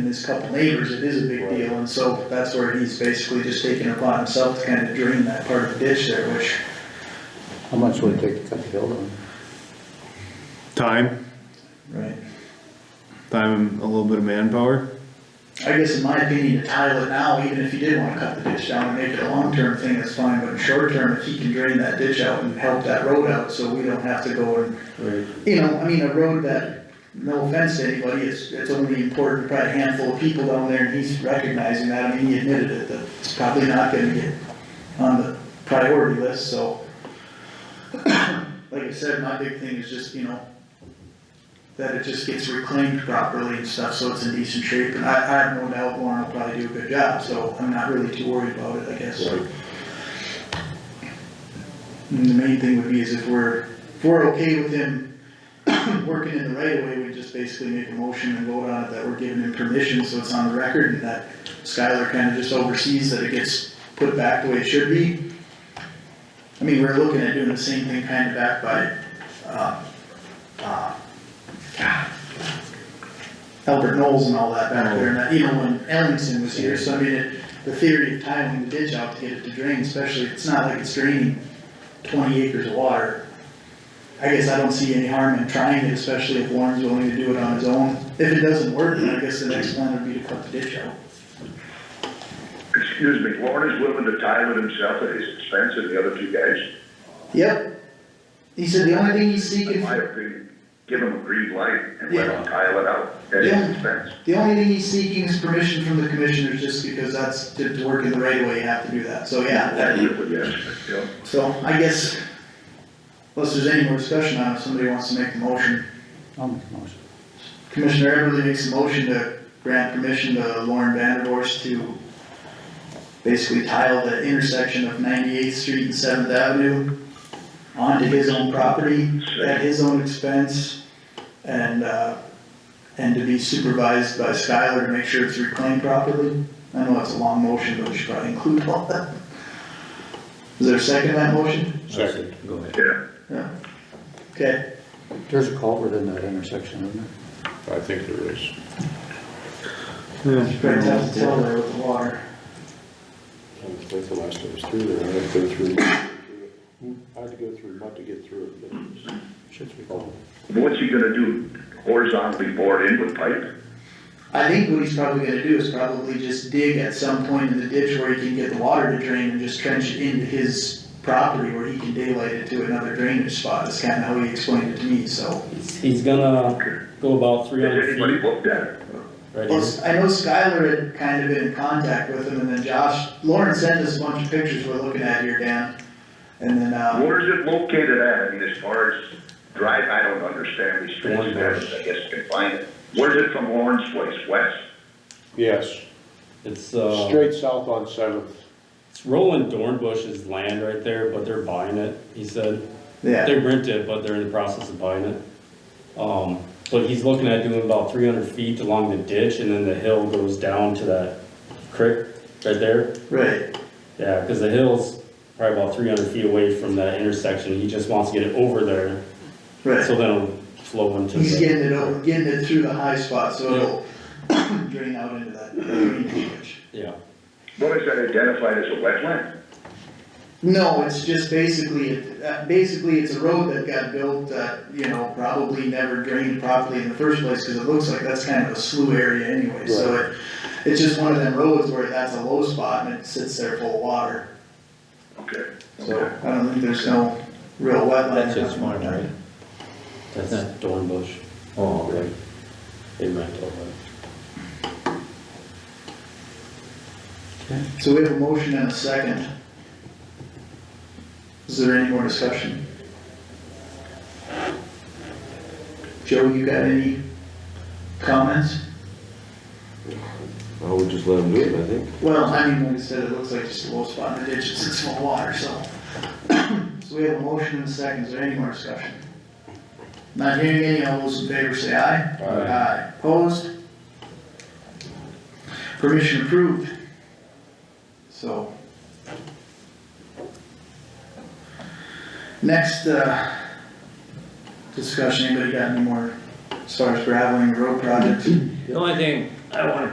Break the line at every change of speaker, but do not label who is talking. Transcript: and his couple neighbors, it is a big deal, and so that's where he's basically just taking it upon himself to kind of drain that part of the ditch there, which
How much would it take to cut the hill down?
Time,
Right.
time and a little bit of manpower.
I guess in my opinion, to tile it now, even if you did wanna cut the ditch down and make it a long-term thing, that's fine, but in short term, if he can drain that ditch out and help that road out, so we don't have to go and, you know, I mean, a road that, no offense to anybody, it's, it's only important to probably a handful of people down there, and he's recognizing that, I mean, he admitted it, that it's probably not gonna get on the priority list, so. Like I said, my big thing is just, you know, that it just gets reclaimed properly and stuff, so it's in decent shape, and I, I have no doubt Lauren will probably do a good job, so I'm not really too worried about it, I guess. And the main thing would be is if we're, if we're okay with him working in the right of way, we just basically make a motion and vote on it that we're giving him permission, so it's on the record, and that Skylar kinda just oversees that it gets put back the way it should be. I mean, we're looking at doing the same thing kinda back by, uh, uh, Albert Knowles and all that back there, and that, you know, when Ellingson was here, so I mean, it- the theory of tiling the ditch out to get it to drain, especially, it's not like it's draining twenty acres of water. I guess I don't see any harm in trying it, especially if Warren's willing to do it on his own. If it doesn't work, then I guess the next plan would be to cut the ditch out.
Excuse me, Warren is willing to tile it himself at his expense and the other two guys,
Yep. He said the only thing he's
in
seeking,
my
for-
opinion, give him a green light and let him tile it out at
Yeah.
his expense.
the only thing he's seeking is permission from the commissioners, just because that's, to, to work in the right of way, you have to do that, so yeah, that,
That's what yes, yeah.
So I guess, unless there's any more discussion on it, if somebody wants to make the motion.
I'll make a motion.
Commissioner Everly makes a motion to grant permission to Lauren Vanderhorst to basically tile the intersection of Ninety-Eighth Street and Seventh Avenue onto his own property at his own expense and, uh, and to be supervised by Skylar to make sure it's reclaimed properly. I know it's a long motion, but we should probably include all that. Is there a second to that motion?
Second. Go ahead.
yeah.
Okay,
There's a culvert in that intersection, isn't there?
I think there is.
it's pretty tough to tell there with the water.
I think the last time I was through there, I had to go through, I had to go through mud to get through it, but it was-
Should be culvert.
What's he gonna do, horizontally bore in with pipe?
I think what he's probably gonna do is probably just dig at some point in the ditch where he can get the water to drain and just trench it into his property where he can daylight it to another drainage spot, is kinda how he explained it to me, so.
He's- He's gonna go about three
Has
hundred
anybody
feet
looked at it?
Well,
right here.
s- I know Skylar had kind of been in contact with him, and then Josh, Lauren sent us a bunch of pictures we're looking at here, Dan. And then, uh,
Where is it located at? I mean, as far as drive, I don't understand these streets, and alleys, I guess you can find it. Where's it from Lauren's place, west?
Yes,
It's, uh,
straight south on Seventh.
it's Roland Dornbush's land right there, but they're buying it, he said.
yeah,
They rent it, but they're in the process of buying it. Um, but he's looking at doing about three hundred feet along the ditch and then the hill goes down to that creek right there.
right,
Yeah, cause the hill's probably about three hundred feet away from that intersection. He just wants to get it over there, so
right.
then it'll flow into the.
He's getting it over, getting it through the high spot, so it'll drain out into that drainage ditch.
Yeah,
What is that identified as a wetland?
No, it's just basically, uh, basically it's a road that got built that, you know, probably never drained properly in the first place, cause it looks like that's kind of a slough area anyway, so it, it's just one of them roads where that's a low spot and it sits there full of water,
Okay.
so
okay.
I don't think there's no real wetland.
That's
or
just
nothing like
one,
that.
right?
that's Dornbush.
Oh, right.
They rent all that.
So we have a motion and a second. Is there any more discussion? Joe, you got any comments?
I would just let them do it, I think.
Well, I mean, like I said, it looks like just a little spot in the ditch, it's in small water, so. So we have a motion and a second, is there any more discussion? Not hearing any, all those in favor say aye.
Aye.
Opposed? Permission approved. So. Next, uh, discussion, anybody got any more, as far as graveling the road project?
The only thing I wanna